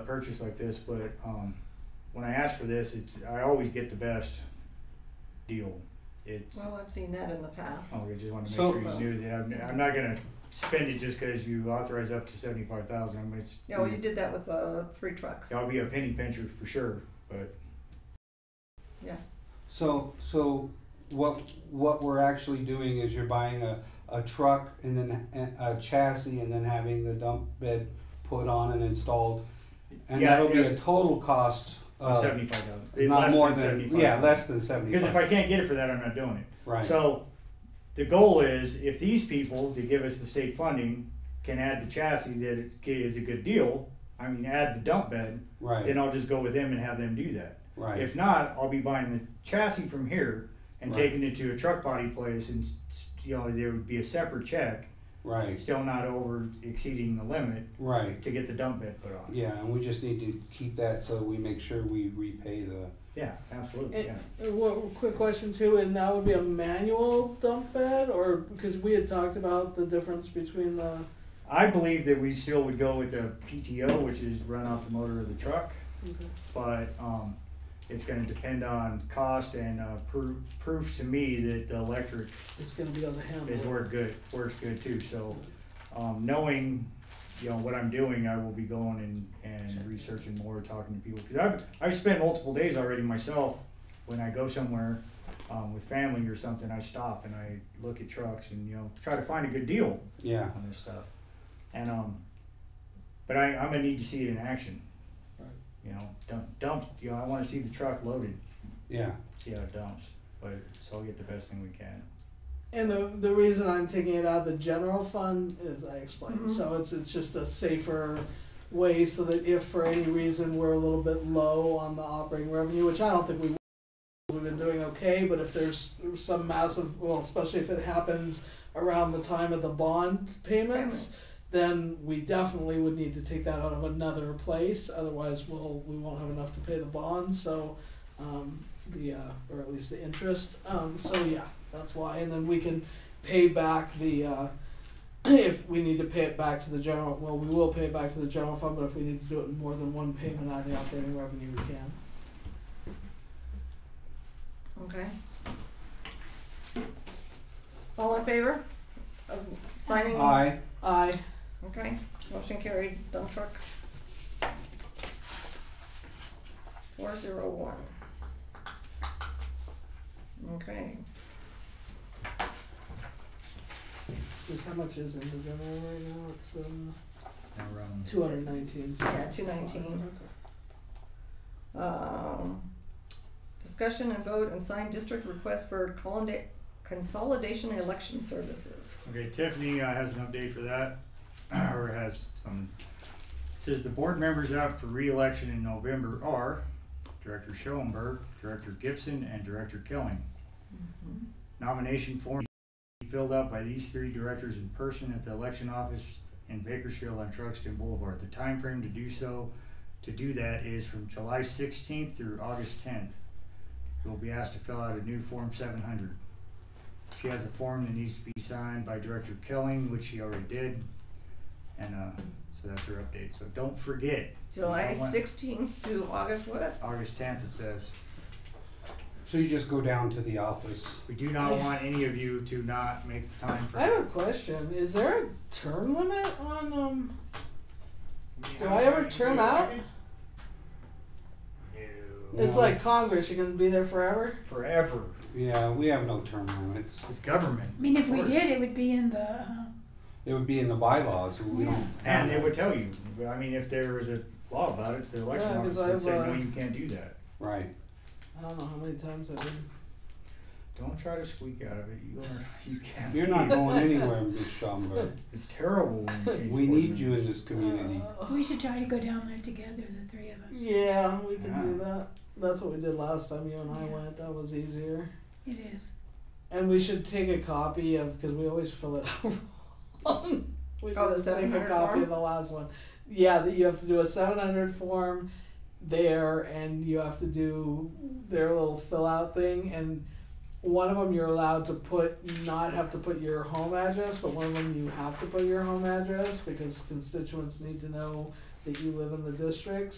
purchase like this, but um, when I ask for this, it's I always get the best deal. It's Well, I've seen that in the past. oh, I just wanted to make So- uh, sure you knew that I'm, I'm not gonna spend it just because you authorize up to seventy five thousand. I'm it's Yeah, well, you did that with, uh, three trucks, I'll be a penny pincher for sure, but yes. So, so what, what we're actually doing is you're buying a, a truck and then a a chassis and then having the dump bed put on and installed. And yeah, that'll be yeah, a total cost of seventy five thousand. Uh, not less more than, than, 75. yeah, less than Because if seventy-five, I can't get it for that, I'm not doing it. right, So the goal is if these people that give us the state funding can add the chassis that it g- is a good deal, I mean, add the dump bed, right, then I'll just go with them and have them do that. right, If not, I'll be buying the chassis from here and Right. taking it to a truck body place and, s- s- you know, there would be a separate check, right, still not over exceeding the limit right. to get the dump bed put on. Yeah, and we just need to keep that so we make sure we repay the, Yeah, absolutely, And, yeah. and one quick question too, and that would be a manual dump bed, or because we had talked about the difference between the I believe that we still would go with the PTO, which is run off the motor of the truck. okay. but um, it's going to depend on cost and uh, proof, proof to me that the electric it's going to be on the handle. is work good works good too. So um, knowing you know what I'm doing, I will be going and, and researching more, talking to people because I've I've spent multiple days already myself when I go somewhere. Um, with family or something, I stop and I look at trucks and you know try to find a good deal yeah, on this stuff. And um, but I, I'm gonna need to see it in action. Right. You know, dump, dump. You know, I want to see the truck loaded, yeah, see how it dumps. But so I'll get the best thing we can. And the the reason I'm taking it out of the general fund is I explained. Mhm. So it's it's just a safer way so that if for any reason we're a little bit low on the operating revenue, which I don't think we will, we've been doing okay, but if there's some massive well, especially if it happens around the time of the bond payments, then we definitely would need to take that out of another place. Otherwise, we'll we won't have enough to pay the bond. So, um, the uh, or at least the interest. Um, so yeah, that's why. And then we can pay back the uh, if we need to pay it back to the general. Well, we will pay it back to the general fund, but if we need to do it in more than one payment out of the operating revenue, we can. Okay. All in favor of signing? aye, Aye. Okay, motion carried, dump truck. Four zero one. Okay, Just how much is in the general right now? It's uh, Now we're on- two hundred nineteen. yeah, two nineteen. Um, discussion and vote and sign district request for colonda- consolidation election services. Okay, Tiffany uh, has an update for that, or has some. Says the board members out for reelection in November are Director Schoenberg, Director Gibson, and Director Killing. Nomination form be filled out by these three directors in person at the election office in Bakersfield on Truxton Boulevard. The time frame to do so, to do that is from July sixteenth through August tenth. You'll be asked to fill out a new Form seven hundred. She has a form that needs to be signed by Director Kelling, which she already did. And, uh, so that's her update. So don't forget, July You know what? sixteenth to August what? August tenth, it says, so you just go down to the office. we do not want any of you to not make the time for. I have a question. Is there a term limit on um? Do I ever term out? No. It's No. like Congress. You can be there forever. Forever. Yeah, we have no term limits. It's government. I mean, if we Of course. did, it would be in the, uh, It would be in the bylaws, and we don't. have And they that. would tell you, I mean, if there was a law about it, the election Yeah, office 'cause would I've, say, no, uh, you can't do that. Right, I don't know how many times I've been. Don't try to squeak out of it, you are, you can't. you're not going anywhere, Ms. Schaumburg. It's terrible when you change. We board need you members. in this community. we should try to go down there together, the three of us. Yeah, we can do Yeah. that. That's what we did last time you and I Yeah. went. That was easier. It is. And we should take a copy of because we always fill it out wrong. we should Oh, the just take a 700 copy form? of the last one. Yeah, that you have to do a seven hundred form there, and you have to do their little fill out thing. And one of them you're allowed to put not have to put your home address, but one of them you have to put your home address because constituents need to know that you live in the district.